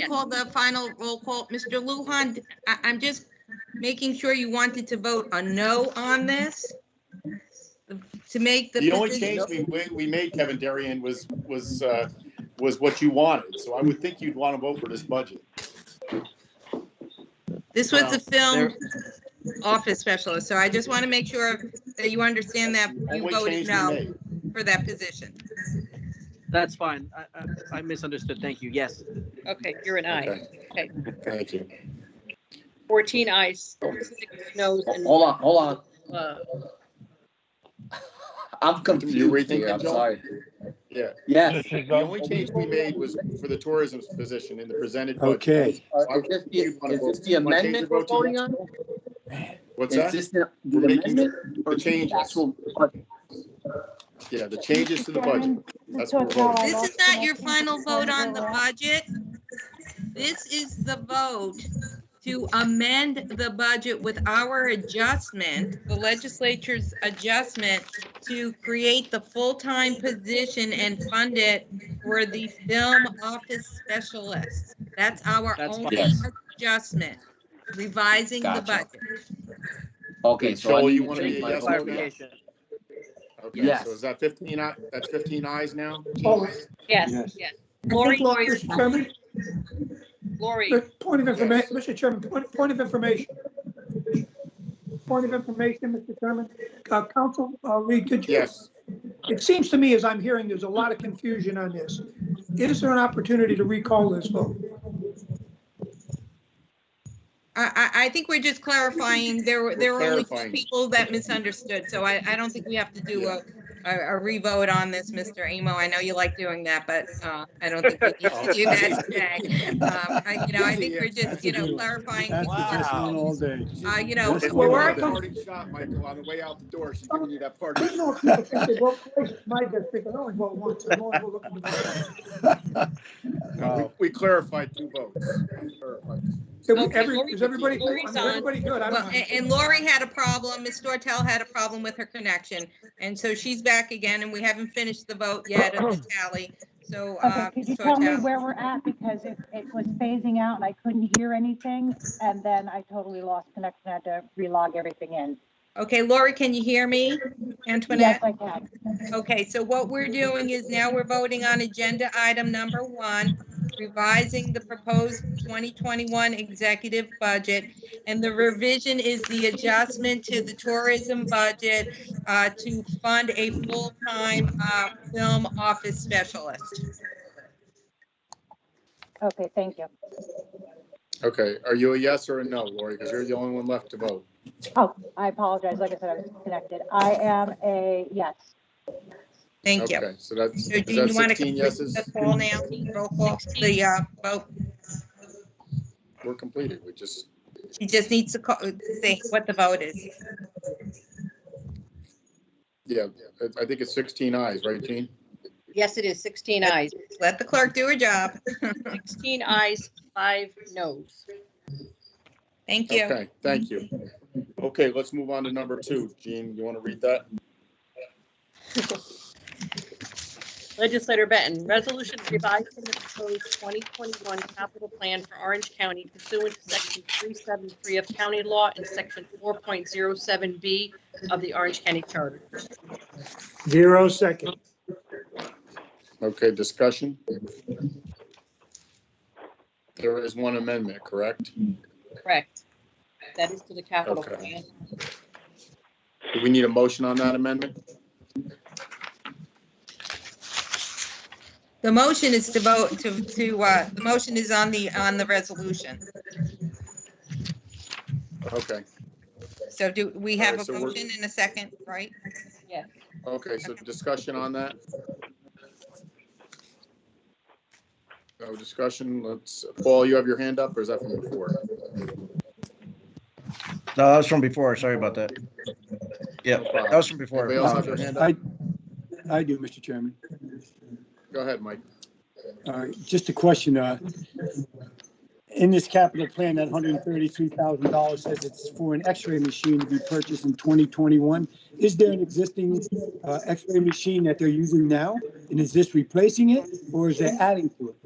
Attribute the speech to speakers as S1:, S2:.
S1: to call the final roll call. Mr. Luhan, I, I'm just making sure you wanted to vote a no on this to make the.
S2: The only
S1: position-
S2: change we, we- we made, Kevin Darian, was, was, uh, was what you wanted. So I would think you'd want to vote for this budget.
S1: This was the
S3: Well,
S1: film office specialist, so I just want to make sure that you understand that you
S2: Only
S1: voted
S2: change we
S1: no
S2: made.
S1: for that position.
S3: That's fine. I, I, I misunderstood. Thank you. Yes.
S4: Okay, you're an aye. Okay,
S2: Okay. Thank you.
S4: 14 ayes, six noes, and
S5: Hold on, hold on.
S4: uh,
S5: I'm
S2: you
S5: confused
S2: rethink
S5: here.
S2: it,
S5: I'm
S2: Joel?
S5: sorry.
S2: Yeah.
S5: Yes.
S2: The only change we made was for the tourism position in the presented budget.
S6: Okay,
S5: Uh, Is this the- is this the amendment we're voting on?
S2: What's
S5: Is
S2: that?
S5: this the the
S2: We're making
S5: amendment? or
S2: the changes.
S5: actual-
S2: Yeah, the changes to the budget. That's what we're
S1: This is not your final vote on the budget. This is the vote to amend the budget with our adjustment, the legislature's adjustment to create the full-time position and fund it for the film office specialist. That's our
S3: That's
S1: only
S5: Yes.
S1: adjustment, revising the
S5: Gotcha.
S1: budget.
S5: Okay, so I
S2: Joel,
S5: need
S2: you
S5: to
S2: wanna
S5: change
S2: be a
S5: my
S2: yes
S5: vote.
S2: or no?
S3: Clarification.
S2: Okay,
S5: Yes.
S2: so is that fifteen, eye- that's fifteen eyes now?
S4: yes,
S6: Yes.
S4: yes. Oh, Lori,
S7: Lori, Mr. Chairman,
S4: Lori,
S7: the point of
S2: Yes.
S7: information, Mr. Chairman, point, point of information. Point of information, Mr. Chairman, uh, Council, uh, Reed, did you?
S2: Yes.
S7: It seems to me, as I'm hearing, there's a lot of confusion on this. Is there an opportunity to recall this vote?
S1: I, I, I think we're just clarifying, there were, there were
S2: We're
S1: only two
S2: clarifying.
S1: people that misunderstood, so I, I don't think we have to do a, a a revote on this, Mr. Emo. I know you like doing that, but, uh, I don't think we need to do that today. Um, I, you know, I think we're just, you know, clarifying.
S6: that's just on all day.
S1: Uh, you know,
S6: That's
S2: It's
S6: the way
S2: like
S7: Well, where
S6: I
S7: I
S2: a
S6: go.
S7: come-
S2: parting shot, Michael, on the way out the door, she's giving you that party.
S7: There's no people think they vote twice. My district, I only vote once. I'm only looking to vote
S2: We- We clarified two votes. We clarified.
S7: once.
S4: Okay,
S7: Every-
S4: Lori-
S7: Is everybody,
S4: Lori's
S7: is
S4: on. eh,
S7: everybody good? I
S1: Well,
S7: don't
S1: a-
S7: know.
S1: and Lori had a problem, Ms. Dortel had a problem with her connection, and so she's back again, and we haven't finished the vote yet of the tally, so, uh.
S8: Okay, could you
S1: Ms.
S8: tell me
S1: Dortel-
S8: where we're at? Because it, it was phasing out and I couldn't hear anything. And then I totally lost connection. I had to relog everything in.
S1: Okay, Lori, can you hear me? Antoinette?
S8: Yes, I can.
S1: Okay, so what we're doing is now we're voting on agenda item number one, revising the proposed 2021 executive budget. And the revision is the adjustment to the tourism budget uh, to fund a full-time uh, film office specialist.
S8: Okay, thank you.
S2: Okay, are you a yes or a no, Lori? Because you're the only one left to vote.
S8: Oh, I apologize. Like I said, I was connected. I am a, yes.
S1: Thank you.
S2: Okay, so that's,
S1: So
S2: is
S1: do you
S2: that
S1: want to
S2: sixteen
S1: complete
S2: yeses?
S1: the poll now? Roll call, the uh, vote.
S2: We're completed, we just,
S1: She just needs to call- say what the vote is.
S2: yeah, I- I think it's sixteen eyes, right, Gene?
S4: yes, it is 16 ayes,
S1: Let the clerk do her job.
S4: 16 ayes, five noes.
S1: Thank you.
S2: Okay, thank you. Okay, let's move on to number two. Gene, you want to read that?
S4: Legislator Benton, resolution revising the proposed 2021 capital plan for Orange County pursuant to section 373 of county law and section 4.07B of the Orange County Charter.
S6: Zero second.
S2: Okay, discussion? There is one amendment, correct?
S4: Correct. That is to the capital
S2: Okay.
S4: plan.
S2: Do we need a motion on that amendment?
S1: The motion is to vote to, to, uh, the motion is on the, on the resolution.
S2: Okay,
S1: So do, we have
S2: Alright,
S1: a
S2: so we're-
S1: motion in a second, right?
S4: Yes.
S2: okay, so discussion on that? No Oh, discussion, let's, Paul, you have your hand up, or is that from before?
S9: No, that was from before. Sorry about that. Yeah, that was from before.
S2: Anybody else have their hand up?
S6: I, I do, Mr. Chairman.
S2: Go ahead, Mike.
S6: Uh, Just a question. uh, In this capital plan, that $133,000 says it's for an x-ray machine to be purchased in 2021. Is there an existing uh, x-ray machine that they're using now? And is this replacing it or is they adding to it?